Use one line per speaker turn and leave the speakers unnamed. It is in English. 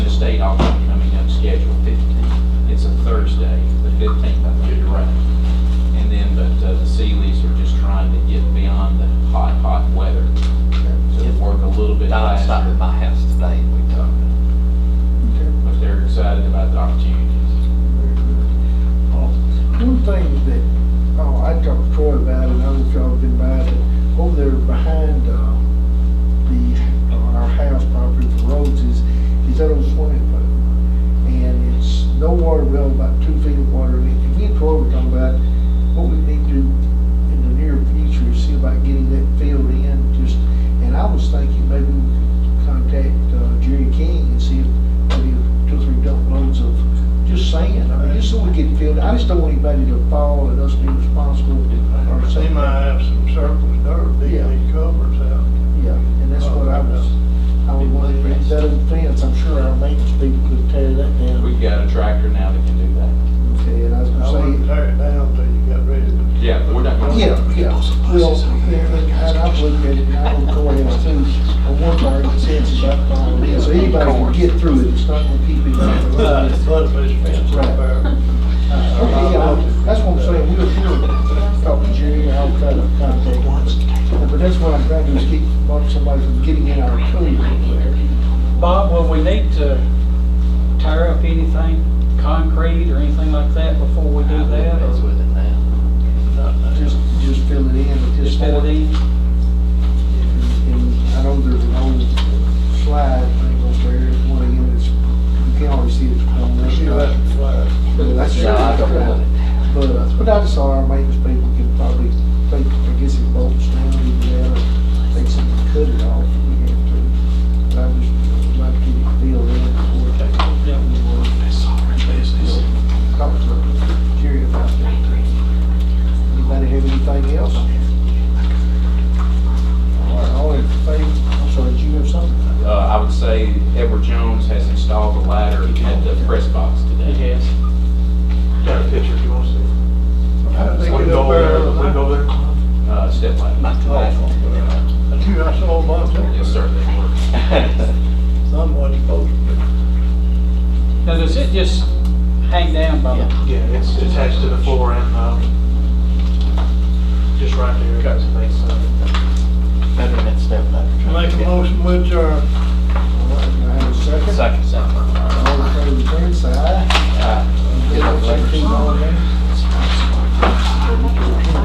meeting already coming up scheduled fifteenth. It's a Thursday, the fifteenth, I think you're right. And then, but uh, the Seelys are just trying to get beyond the hot, hot weather to work a little bit
Don stopped at
faster.
my house today and we talked.
But they're excited about the opportunities.
One thing that, oh, I talked to Troy about it, and others y'all been by it, over there behind, uh, the, uh, our house property for roads is, is that old swimming pool. And it's no water well, about two feet of water in it. And me and Troy were talking about what we need to do in the near future, is see about getting that filled in, just, and I was thinking maybe we could contact uh, Jerry King and see if maybe two or three dump loads of just sand, I mean, just so we get filled, I just don't want anybody to fall and us be responsible or
They
something.
might have some surplus dirt, dig
Yeah.
these covers out.
Yeah, and that's what I was, I would want to bring that old fence, I'm sure our maintenance people could tear that down.
We've got a tractor now that can do that.
Okay, and I was
I
gonna say,
wouldn't tear it down till you got ready to.
Yeah, we're not gonna-
yeah, yeah, well, and and I've looked at it, and I don't go ahead too, but one part of the sense about following it, so anybody can get through it, it's not gonna keep it.
Right, it's flood fish fence up there.
Okay, yeah, that's what I'm saying, we were, we were talking to Jerry, and I'll try to contact him. But that's what I'm trying to do, is keep somebody from getting in our code over there.
Bob, will we need to tear up anything, concrete or anything like that before we do that?
That's
or
with it now.
Not now.
Just, just fill it in at this
Just
point.
fill it in?
And I know there's an old slide thing over there, it's one of them, it's, you can always see it's on there.
See that flag?
But that's
No, I don't want it.
But, uh, but I just saw our maintenance people can probably, take I guess it bolts down, either that, or they can cut it off if we have to. But I just would like to get it filled in before it takes, that would work. Talk to Jerry about that. Anybody have anything else? All right, all in favor, I'm sorry, did you have something?
Uh, I would say Edward Jones has installed a ladder at the press box today.
Yes.
Got a picture if you want to see.
How'd they
So we
get up
go
there?
there, we go there.
Uh, step ladder.
That's you, I saw a bunch of them.
Yes, sir, they work.
Someone posted it.
Now, does it just hang down by the,
Yeah, it's attached to the floor and, um, just right there. Got some